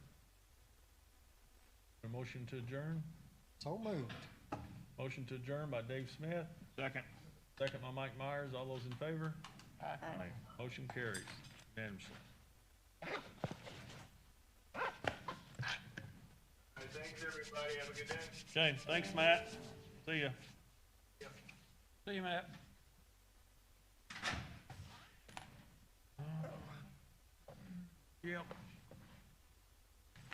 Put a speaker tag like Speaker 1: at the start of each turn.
Speaker 1: motion to adjourn?
Speaker 2: So moved.
Speaker 1: Motion to adjourn by Dave Smith. Second. Second by Mike Myers. All those in favor? Aye. Motion carries unanimously.
Speaker 3: Hey, Thanks, everybody. Have a good day.
Speaker 1: James, thanks, Matt. See ya. See you, Matt. Yep.